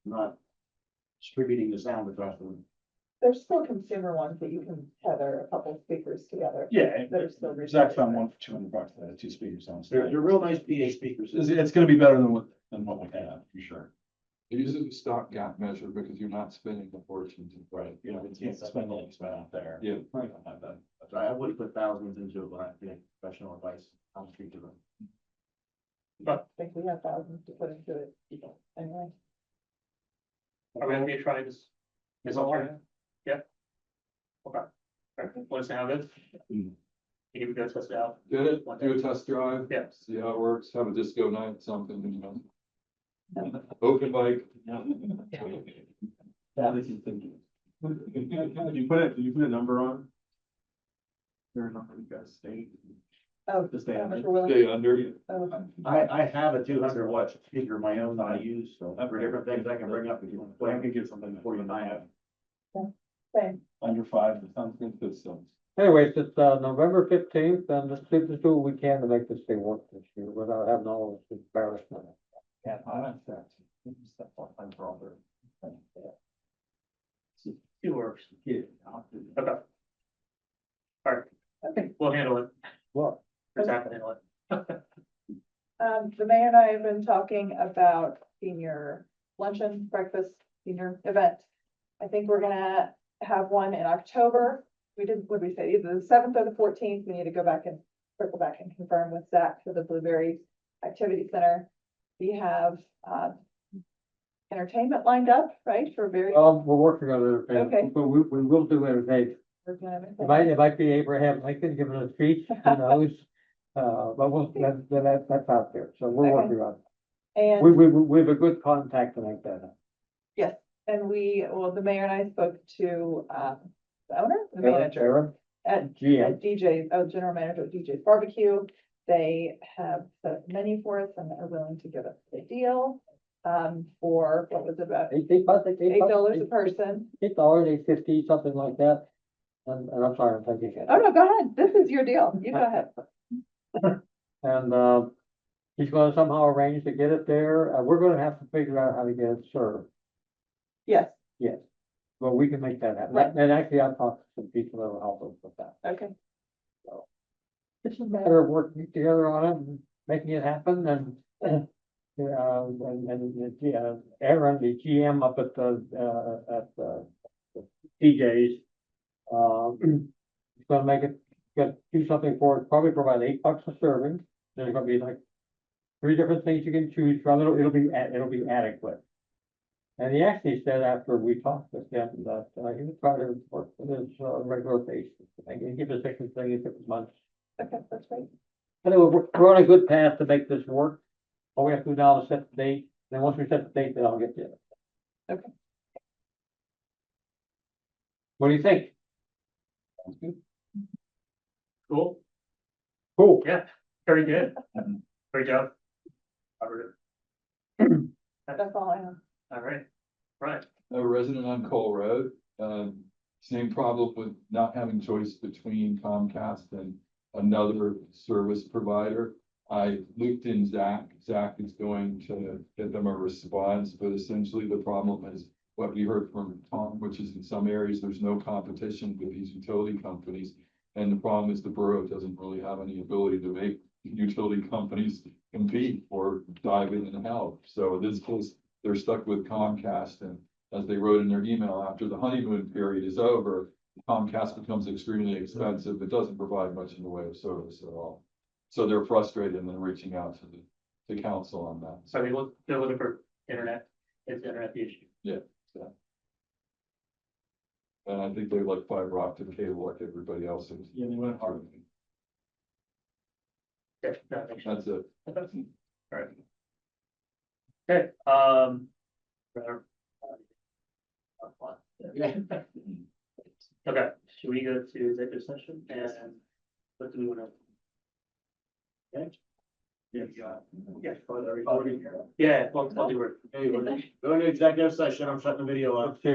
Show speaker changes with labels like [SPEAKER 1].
[SPEAKER 1] not distributing the sound across the room.
[SPEAKER 2] There's still consumer ones that you can tether a couple speakers together.
[SPEAKER 3] Yeah,
[SPEAKER 2] There's still
[SPEAKER 3] Zach
[SPEAKER 2] reasons.
[SPEAKER 3] found one for two hundred bucks, that had two speakers on.
[SPEAKER 1] They're,
[SPEAKER 3] stage.
[SPEAKER 1] they're real nice PA speakers.
[SPEAKER 3] It's, it's gonna be better than what, than what we have, for sure.
[SPEAKER 4] It uses a stopgap measure because you're not spending a fortune to. Right.
[SPEAKER 3] You know, it's, it's spending, it's been out there.
[SPEAKER 4] Yeah.
[SPEAKER 3] We don't have that.
[SPEAKER 1] That's right. I would put thousands into it, but I think professional advice, I'm speaking to them.
[SPEAKER 2] I think we have thousands to put into it, you know, anyway.
[SPEAKER 5] Are we gonna be trying this? Is all right? Yeah. Okay. Alright, let us know how it is.
[SPEAKER 4] Mm.
[SPEAKER 5] You can go test it out.
[SPEAKER 4] Did it, do a test drive.
[SPEAKER 5] Yeah.
[SPEAKER 4] See how it works, have a disco night, something, you know. Open mic.
[SPEAKER 3] That is thinking. Did you put it, did you put a number on? There a number you guys state?
[SPEAKER 2] Oh,
[SPEAKER 3] Just stay
[SPEAKER 2] how much
[SPEAKER 3] under.
[SPEAKER 2] we're willing-
[SPEAKER 4] Stay under.
[SPEAKER 2] oh,
[SPEAKER 1] I, I have a two hundred watt speaker of my own that I use, so for different things I can bring up if you want to
[SPEAKER 3] Well,
[SPEAKER 1] play.
[SPEAKER 3] I could get something
[SPEAKER 1] Before you and I have.
[SPEAKER 2] same.
[SPEAKER 3] Under five, that sounds good, that sounds.
[SPEAKER 6] Anyways, it's uh November fifteenth, and let's do let's do what we can to make this thing work this year without having all this embarrassment.
[SPEAKER 3] Yeah, I like that. That's what I'm brother.
[SPEAKER 5] It works.
[SPEAKER 3] Yeah.
[SPEAKER 5] Okay. Alright.
[SPEAKER 2] Okay.
[SPEAKER 5] We'll handle it.
[SPEAKER 6] Well,
[SPEAKER 5] Or Zach will handle it.
[SPEAKER 2] Um, the mayor and I have been talking about senior luncheon, breakfast, senior event. I think we're gonna have one in October. We didn't, what did we say, either the seventh or the fourteenth, we need to go back and circle back and confirm with Zach for the Blueberry Activity Center. We have, uh, entertainment lined up, right, for various.
[SPEAKER 6] um, we're working on
[SPEAKER 2] Okay.
[SPEAKER 6] entertainment, but we we will do entertainment.
[SPEAKER 2] we're gonna have
[SPEAKER 6] It
[SPEAKER 2] entertainment.
[SPEAKER 6] might, it might be Abraham Lincoln giving a speech, who knows? Uh, but we'll, that, that, that's out there, so we're
[SPEAKER 2] Okay.
[SPEAKER 6] working on it.
[SPEAKER 2] And.
[SPEAKER 6] We, we, we have a good contact to make that.
[SPEAKER 2] And we, well, the mayor and I spoke to, um, the owner, the
[SPEAKER 6] happen.
[SPEAKER 2] manager
[SPEAKER 6] Aaron,
[SPEAKER 2] at,
[SPEAKER 6] GM,
[SPEAKER 2] at DJ's, oh, general manager at DJ's Barbecue. They have the menu for us and are willing to give us a deal, um, for what was it about
[SPEAKER 6] eight, eight bucks,
[SPEAKER 2] eight dollars a
[SPEAKER 6] eight-
[SPEAKER 2] person.
[SPEAKER 6] Eight dollars, eight fifty, something like that. And, and I'm sorry, I'm thinking.
[SPEAKER 2] Oh, no, go ahead. This is your deal. You go ahead.
[SPEAKER 6] And, uh, he's gonna somehow arrange to get it there. Uh, we're gonna have to figure out how to get it served,
[SPEAKER 2] Yes,
[SPEAKER 6] but we can make that happen.
[SPEAKER 2] Right.
[SPEAKER 6] And actually, I've talked to some people that will help us with that.
[SPEAKER 2] okay.
[SPEAKER 6] It's a matter of working together on it and making it happen and, and, uh, and, and, yeah, Aaron, the GM up at the, uh, at the DJ's, uh, he's gonna make it, gonna do something for it, probably provide eight bucks a serving. There's gonna be like three different things you can choose from. It'll, it'll be, a- it'll be adequate. And he actually said after we talked with him that, uh, he would try to work with his, uh, regular basis. I can give a second thing if it was months.
[SPEAKER 2] Okay, that's great.
[SPEAKER 6] Anyway, we're, we're on a good path to make this work. All we have to do now is set the date, then once we set the date, then I'll get you.
[SPEAKER 2] Okay.
[SPEAKER 6] What do you think?
[SPEAKER 5] Cool.
[SPEAKER 6] Cool.
[SPEAKER 5] Very good. Great job. Robert.
[SPEAKER 2] That's all I have.
[SPEAKER 5] Alright. Right.
[SPEAKER 4] a resident on Cole Road. Um, same problem with not having choice between Comcast and another service provider. I looped in Zach. Zach is going to get them a response, but essentially the problem is what we heard from Tom, which is in some areas, there's no competition with these utility companies. And the problem is the borough doesn't really have any ability to make utility companies compete or dive in and help. So in this case, they're stuck with Comcast and as they wrote in their email, after the honeymoon period is over, Comcast becomes extremely expensive. It doesn't provide much in the way of service at all. So they're frustrated and then reaching out to the, the council on that.
[SPEAKER 5] So we look, they're looking for internet. Is internet the issue?
[SPEAKER 4] And I think they like fiber optic cable like everybody else. is.
[SPEAKER 3] Yeah, they went hard.
[SPEAKER 5] Yeah, that makes sense.
[SPEAKER 4] That's it.
[SPEAKER 5] Alright. Okay, um. rather- Okay, should we go to executive session and what do we wanna?
[SPEAKER 1] Yes.
[SPEAKER 5] Yeah,
[SPEAKER 1] Oh, they're recording here.
[SPEAKER 5] yeah, well, I'll do it.
[SPEAKER 1] Anyway, going to executive session. I'm shutting the video off.